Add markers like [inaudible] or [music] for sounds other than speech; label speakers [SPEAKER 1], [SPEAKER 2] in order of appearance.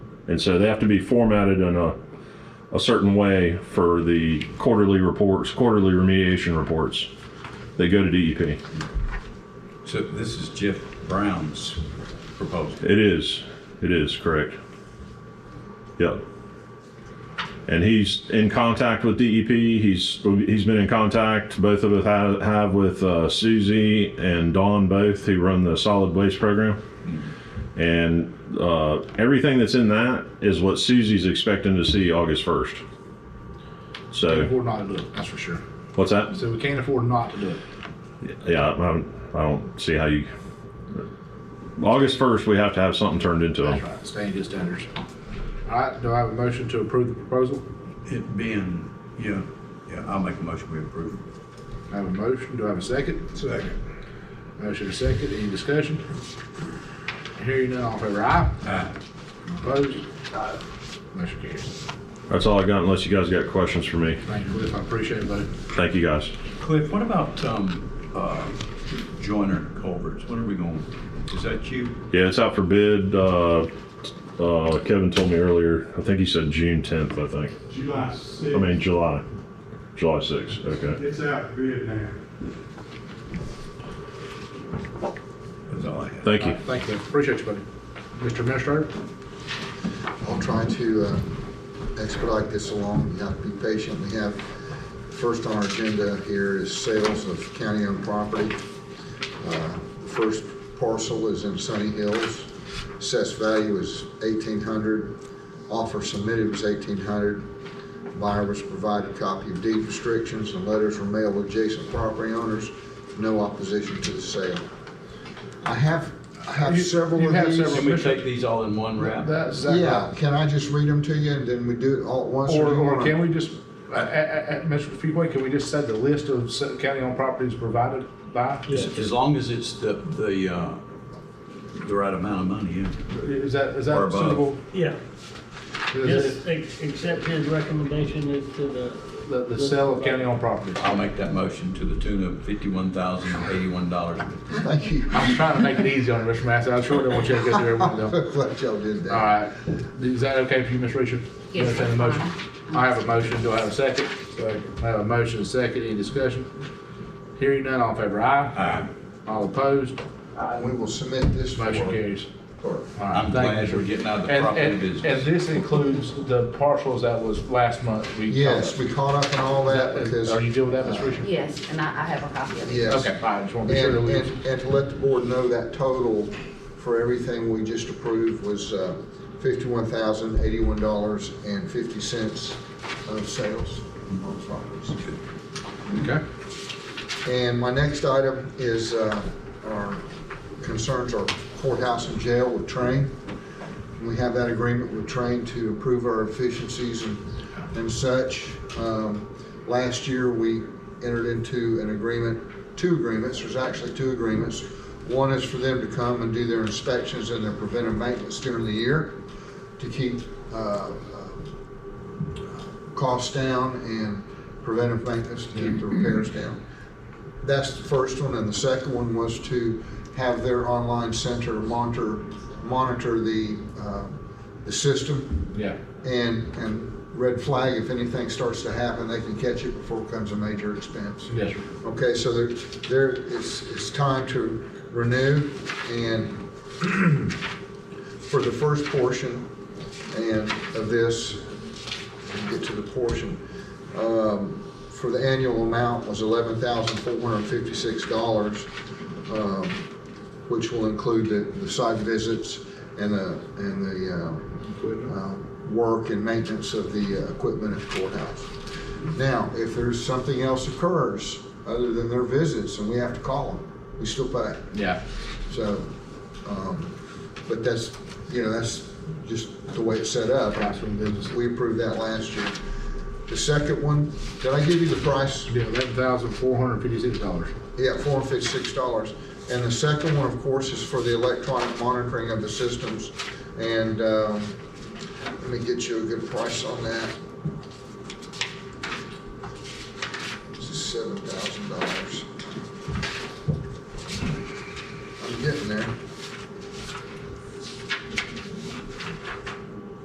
[SPEAKER 1] And so they have to be formatted in a, a certain way for the quarterly reports, quarterly remediation reports. They go to E DEP.
[SPEAKER 2] So this is Jeff Brown's proposal.
[SPEAKER 1] It is, it is, correct. Yep. And he's in contact with DEP. He's, he's been in contact, both of us have, have with uh, Susie and Dawn both, who run the solid waste program. And uh, everything that's in that is what Susie's expecting to see August 1st.
[SPEAKER 3] Can't
[SPEAKER 1] So,
[SPEAKER 3] afford not to do it, that's for sure.
[SPEAKER 1] what's that?
[SPEAKER 3] So we can't afford not to do it.
[SPEAKER 1] Yeah, I don't, I don't see how you. August first, we have to have something turned into
[SPEAKER 3] That's
[SPEAKER 1] them.
[SPEAKER 3] right, staying to standards. All right, do I have a motion to approve the proposal?
[SPEAKER 2] It being, yeah, yeah, I'll make a motion we approve.
[SPEAKER 3] I have a motion, do I have a second?
[SPEAKER 2] Second.
[SPEAKER 3] Motion and second, any discussion? Hearing none, all in favor, aye?
[SPEAKER 2] Aye.
[SPEAKER 3] Opposed? Aye. Motion carries.
[SPEAKER 1] That's all I got, unless you guys got questions for me.
[SPEAKER 3] Thank you, Cliff, I appreciate it, buddy.
[SPEAKER 1] Thank you, guys.
[SPEAKER 2] Cliff, what about, um, uh, Joyner Culverts? When are we going? Is that you?
[SPEAKER 1] Yeah, it's out for bid. Uh, uh, Kevin told me earlier. I think he said June tenth. I think.
[SPEAKER 4] July sixth.
[SPEAKER 1] I mean July, July sixth. Okay.
[SPEAKER 4] It's out of bid now.
[SPEAKER 2] That's all I have.
[SPEAKER 1] Thank you.
[SPEAKER 3] Thank you, appreciate you, buddy. Mr. Administrator?
[SPEAKER 5] I'll try to uh, expedite this along. You have to be patient. We have, first on our agenda here is sales of county-owned property. Uh, The First parcel is in Sunny Hills. Assessed value is 1,800. Offer submitted was 1,800. Buyer was provided copy of deed restrictions and letters were mailed to adjacent property owners. No opposition to the sale. I have, I have
[SPEAKER 3] You-
[SPEAKER 5] several
[SPEAKER 3] you
[SPEAKER 5] of
[SPEAKER 3] have
[SPEAKER 5] these.
[SPEAKER 3] several
[SPEAKER 2] Can we take these all in one wrap?
[SPEAKER 3] That's
[SPEAKER 5] Yeah, can I just read them to you and then we do it all at once?
[SPEAKER 3] Or,
[SPEAKER 5] do you
[SPEAKER 3] or
[SPEAKER 5] wanna-
[SPEAKER 3] can we just, uh, uh, uh, Mr. Feebway, can we just set the list of se- county-owned properties provided by?
[SPEAKER 2] As as long as it's the, the, uh, the right amount of money, yeah.
[SPEAKER 3] Is that, is
[SPEAKER 2] Or
[SPEAKER 3] that
[SPEAKER 2] above.
[SPEAKER 3] suitable?
[SPEAKER 6] Yeah,
[SPEAKER 3] Is
[SPEAKER 6] just
[SPEAKER 3] it
[SPEAKER 6] ex- accept his recommendation as to the,
[SPEAKER 3] The, the sale of county-owned properties.
[SPEAKER 2] I'll make that motion to the tune of fifty-one thousand eighty-one dollars.
[SPEAKER 5] Thank you. [laughs]
[SPEAKER 3] I'm trying to make it easy on you, Mr. Massey. I sure don't want you to get through every one of them.
[SPEAKER 5] Glad y'all did
[SPEAKER 3] All
[SPEAKER 5] that.
[SPEAKER 3] right, is that okay for you, Ms. Richard?
[SPEAKER 7] Yes,
[SPEAKER 3] Entertain a
[SPEAKER 7] that's
[SPEAKER 3] motion. I have a motion, do I have a second? I have a motion, and a second, any discussion? Hearing none, all in favor, aye?
[SPEAKER 2] Aye.
[SPEAKER 3] All opposed,
[SPEAKER 5] We will submit this for.
[SPEAKER 3] motion carries.
[SPEAKER 5] for-
[SPEAKER 3] All right,
[SPEAKER 2] I'm
[SPEAKER 3] thank you,
[SPEAKER 2] glad
[SPEAKER 3] sir.
[SPEAKER 2] we're getting out of the
[SPEAKER 3] And,
[SPEAKER 2] property
[SPEAKER 3] and, and
[SPEAKER 2] business.
[SPEAKER 3] this includes the parcels that was last month we. covered.
[SPEAKER 5] Yes, we caught up on all that because.
[SPEAKER 3] Are you deal with that, Ms. Richard?
[SPEAKER 7] Yes, and I, I have a copy of it.
[SPEAKER 5] Yes.
[SPEAKER 3] Okay, all right, just want to be sure that
[SPEAKER 5] And,
[SPEAKER 3] we.
[SPEAKER 5] and, and to let the board know that total for everything we just approved was uh, fifty-one thousand, eighty-one dollars and fifty cents of sales
[SPEAKER 3] Mm-hmm.
[SPEAKER 5] on properties.
[SPEAKER 3] Okay.
[SPEAKER 5] And my next item is, uh, our concerns are courthouse and jail with Train. We have that agreement with Train to improve our efficiencies and, and such. Um, Last year, we entered into an agreement, two agreements, there's actually two agreements. One is for them to come and do their inspections and their preventive maintenance during the year to keep, uh, costs down and preventive maintenance to keep the repairs down. That's the first one, and the second one was to have their online center monitor, monitor the, uh, the system
[SPEAKER 3] Yeah.
[SPEAKER 5] and, and red flag, if anything starts to happen, they can catch it before it becomes a major expense.
[SPEAKER 3] Yes, sir.
[SPEAKER 5] Okay, so there, there, it's, it's time to renew and [clears throat] for the first portion and of this, get to the portion, um, for the annual amount was eleven thousand four hundred and fifty-six dollars, um, which will include the, the site visits and the, and the, um, uh, work and maintenance of the uh, equipment at the courthouse. Now, if there's something else occurs other than their visits and we have to call them, we still pay.
[SPEAKER 3] Yeah.
[SPEAKER 5] So, um, but that's, you know, that's just the way it's set up.
[SPEAKER 3] Classroom business.
[SPEAKER 5] We approved that last year. The second one, did I give you the price?
[SPEAKER 3] Yeah, eleven thousand four hundred fifty-six dollars.
[SPEAKER 5] Yeah, four hundred fifty-six dollars. And the second one, of course, is for the electronic monitoring of the systems. And, um, let me get you a good price on that. This is seven thousand dollars.